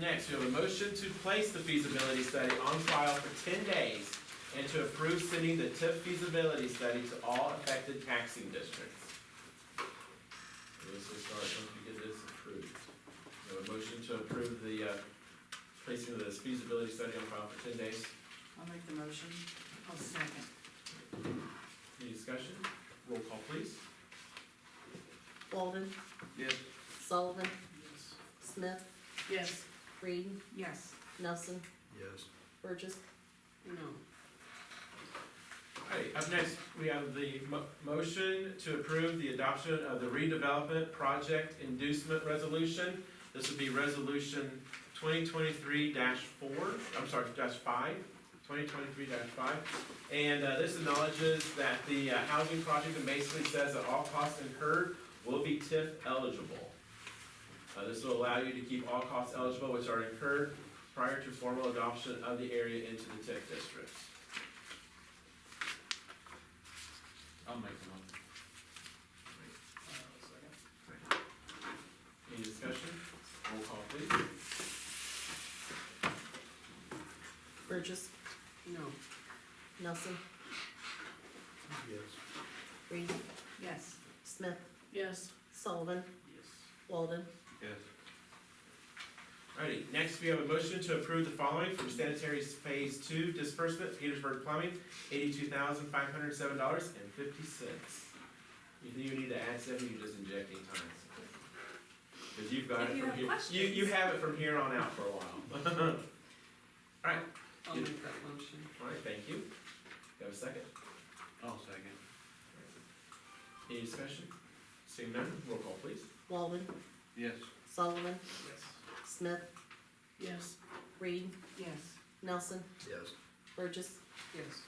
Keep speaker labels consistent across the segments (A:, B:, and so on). A: Next, we have a motion to place the feasibility study on file for ten days and to approve sending the TIF feasibility study to all affected taxing districts. This will start once we get this approved. We have a motion to approve the, uh, placing of this feasibility study on file for ten days.
B: I'll make the motion. I'll second.
A: Any discussion? Roll call, please.
C: Walden,
A: Yes.
C: Sullivan, Smith,
B: Yes.
C: Reed,
B: Yes.
C: Nelson,
D: Yes.
C: Burgess.
B: No.
A: Alright, up next, we have the mo- motion to approve the adoption of the redevelopment project inducement resolution. This would be resolution twenty twenty-three four, I'm sorry, dash five, twenty twenty-three five. And, uh, this acknowledges that the uh, housing project, and basically says that all costs incurred will be TIF eligible. Uh, this will allow you to keep all costs eligible which are incurred prior to formal adoption of the area into the TIF district. I'll make the motion. uh, Any discussion? Roll call please.
C: Burgess,
B: No.
C: Nelson,
D: Yes.
C: Reed,
B: Yes.
C: Smith,
B: Yes.
C: Sullivan, Walden.
A: Yes. Alrighty, next we have a motion to approve the following from sanitary phase two disbursement, Petersburg Plumbing, eighty-two thousand five hundred seven dollars and fifty cents. You think you need to add something, you're just injecting time. Cause you've got
E: If
A: it
E: you
A: from
E: have
A: here, you, you have it from here on out for a while.
B: I'll make that motion.
A: Alright, thank you. You have a second?
D: I'll second.
A: Any discussion? Seeing none, roll call please.
C: Walden,
D: Yes.
C: Sullivan,
A: Yes.
C: Smith,
B: Yes.
C: Reed,
B: Yes.
C: Nelson,
D: Yes.
C: Burgess.
B: Yes.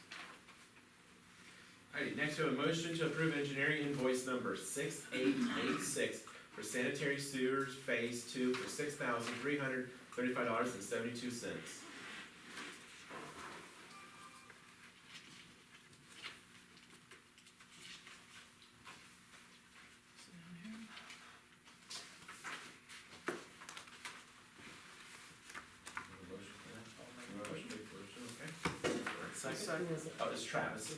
A: Alrighty, next we have a motion to approve engineering invoice number six eight eight six for sanitary sewers phase two for six thousand three hundred thirty-five dollars and seventy-two cents. Motion for that? Motion, okay. Second?
C: Who was it?
A: Oh, it's Travis.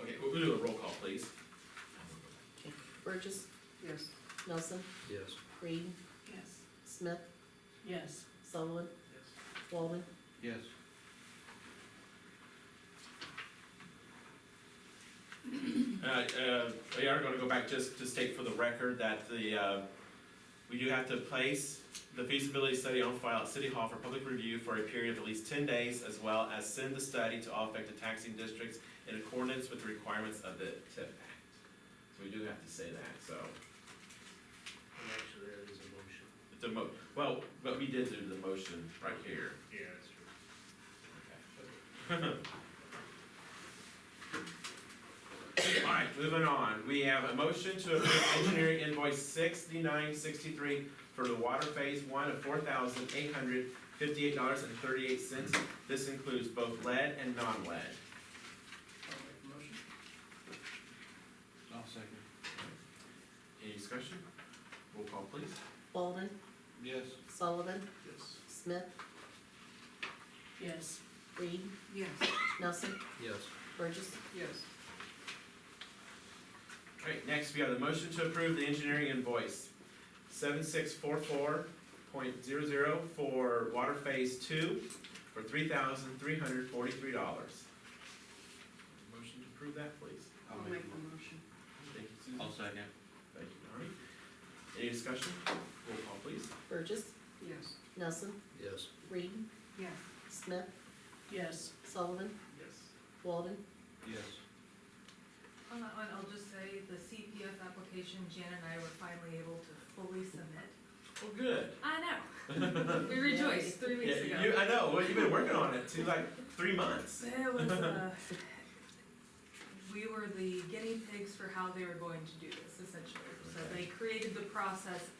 A: Okay, we'll we'll do a roll call, please.
C: Burgess,
B: Yes.
C: Nelson,
D: Yes.
C: Reed,
B: Yes.
C: Smith,
B: Yes.
C: Sullivan, Walden.
D: Yes.
A: Uh, uh, we are gonna go back, just to state for the record that the, uh, we do have to place the feasibility study on file at City Hall for public review for a period of at least ten days, as well as send the study to all affected taxing districts in accordance with the requirements of the TIF Act. So we do have to say that, so,
D: And actually, that is a motion.
A: it's a mo, well, but we did do the motion right here.
D: Yeah, that's true.
A: Alright, moving on, we have a motion to approve engineering invoice sixty-nine sixty-three for the water phase one of four thousand eight hundred fifty-eight dollars and thirty-eight cents. This includes both lead and non-lead.
D: I'll second.
A: Any discussion? Roll call please.
C: Walden,
D: Yes.
C: Sullivan,
D: Yes.
C: Smith,
B: Yes.
C: Reed,
B: Yes.
C: Nelson,
D: Yes.
C: Burgess.
B: Yes.
A: Alright, next we have the motion to approve the engineering invoice, seven six four four point zero zero for water phase two for three thousand three hundred forty-three dollars. Motion to approve that, please.
B: I'll make the motion.
A: Thank you, Susan.
D: I'll second.
A: Thank you, Donnie. Any discussion? Roll call, please.
C: Burgess,
B: Yes.
C: Nelson,
D: Yes.
C: Reed,
B: Yes.
C: Smith,
B: Yes.
C: Sullivan,
A: Yes.
C: Walden.
D: Yes.
E: On that one, I'll just say the CPF application, Jan and I were finally able to fully submit.
A: Well, good.
E: I know. We rejoiced three weeks
A: Yeah, you,
E: ago.
A: I know, well, you've been working on it too, like, three months.
E: There was, uh, we
B: we were the guinea pigs for how they were going to do this essentially. So they created the process